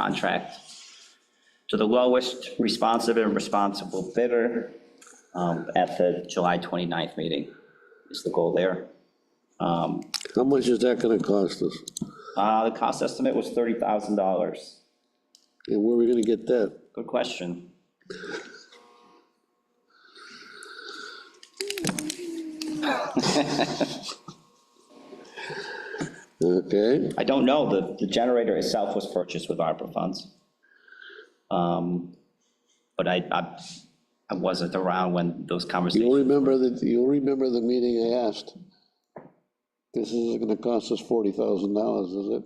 contract to the lowest responsive and responsible bidder um, at the July 29th meeting is the goal there. How much is that gonna cost us? Uh, The cost estimate was $30,000. And where are we gonna get that? Good question. Okay, I don't know, the, the generator itself was purchased with ARPA funds. Um, But I, I, I wasn't around when those you'll conversations, remember that, you'll remember the meeting I asked. This is gonna cost us forty thousand dollars, is it?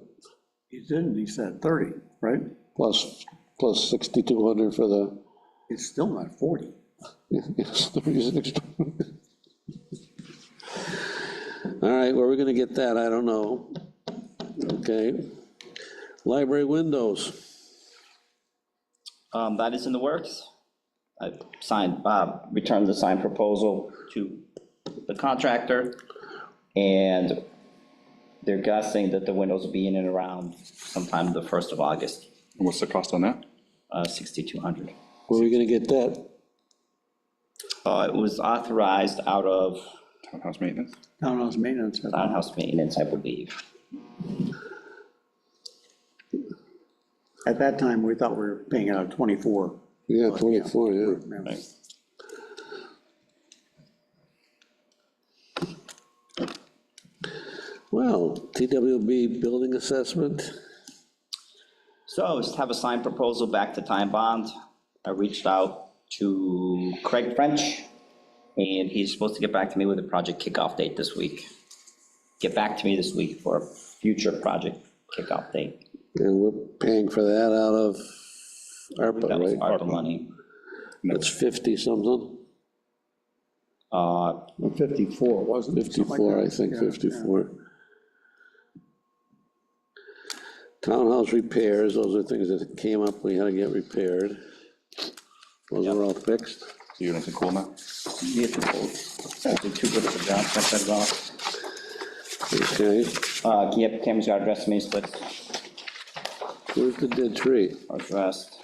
He didn't, he said 30, right? Plus, plus sixty-two hundred for the, It's still not 40. yes, the reason. it's- All right, where are we gonna get that? I don't know. Okay. Library windows, Um, that is in the works. I signed, Bob returned the signed proposal to the contractor, and they're guessing that the windows will be in and around sometime the 1st of August, What's the cost on that? uh, 6,200. where are we gonna get that? Uh, It was authorized out of Townhouse maintenance? Townhouse maintenance, I thought. townhouse maintenance, I believe. at that time, we thought we were paying out 24. Yeah, twenty-four, yeah. remember? Well, TWB building assessment, So, just have a signed proposal back to Time Bond. I reached out to Craig French, and he's supposed to get back to me with a project kickoff date this week. Get back to me this week for a future project kickoff date. and we're paying for that out of ARPA, That was right? ARPA money. That's fifty something, Uh, 54, wasn't it? Something like fifty-four, that. I think, Yeah, fifty-four. Townhouse repairs, those are things that came up, we had to get repaired. Those are all fixed. So you're nice and cool now? we have to hold. I did too good of a job, check that off. Okay, Uh, can you have cameras got addressed, me, split where's the dead tree? addressed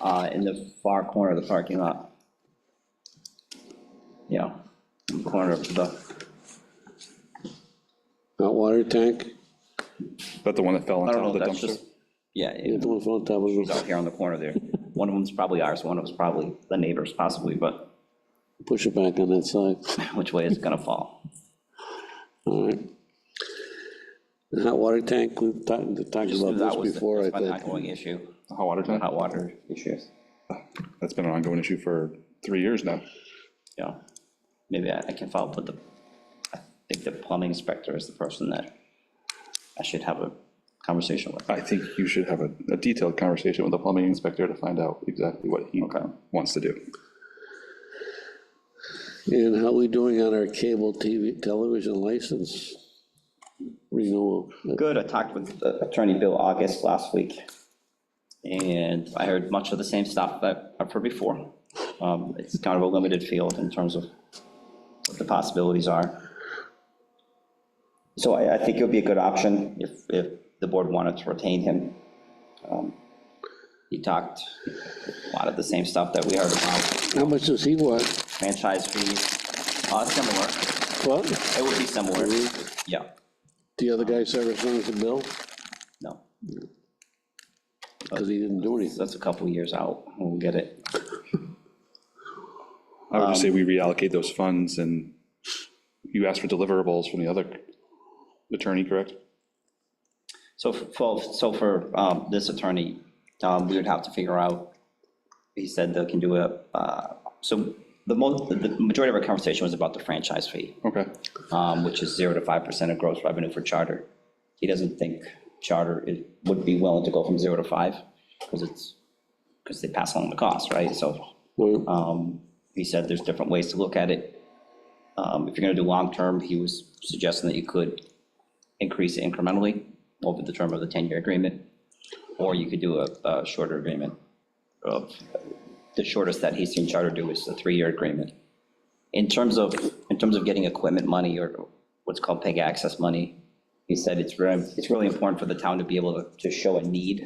uh, in the far corner of the parking lot. Yeah, in the corner of the Hot water tank? Is that the one that fell on I don't top of know, the that's dumpster? just, yeah, Yeah, it's the one on top of the out roof. here on the corner there. One of them's probably ours, one of them's probably the neighbor's possibly, but Push it back on that side. which way is it gonna fall? All right. The hot water tank, we've talked, talked Just knew about that this was the- before, I that's my think. Ongoing issue, The Hot water tank? hot water issues, That's been an ongoing issue for three years now. yeah. Maybe I I can follow up with the, I think the plumbing inspector is the person that I should have a conversation with. I think you should have a, a detailed conversation with the plumbing inspector to find out exactly what he wants to do. And how we doing on our cable TV, television license renewal? Good, I talked with uh, Attorney Bill August last week, and I heard much of the same stuff that I've heard before. Um, It's kind of a limited field in terms of what the possibilities are. So I, I think it would be a good option if, if the board wanted to retain him. Um, He talked a lot of the same stuff that we heard about, How much does he want? franchise fees, uh, similar, What? it would be similar, yeah, The other guy ever sent us a bill? no. Because he didn't do anything. That's a couple years out, we'll get it. I would Um, just say we reallocate those funds and you asked for deliverables from the other attorney, correct? So f- for, so for um, this attorney, um, we would have to figure out, he said they can do a, uh, so the most, the majority of our conversation was about the franchise fee, Okay. um, which is 0 to 5% of gross revenue for charter. He doesn't think charter is- would be willing to go from 0 to 5, because it's, because they pass along the cost, right? So Well, um, He said there's different ways to look at it. Um, If you're going to do long-term, he was suggesting that you could increase it incrementally over the term of the 10-year agreement, or you could do a a shorter agreement. of- The shortest that he's seen Charter do is a three-year agreement. In terms of, in terms of getting equipment money or what's called PEG access money, he said it's very, it's really important for the town to be able to to show a need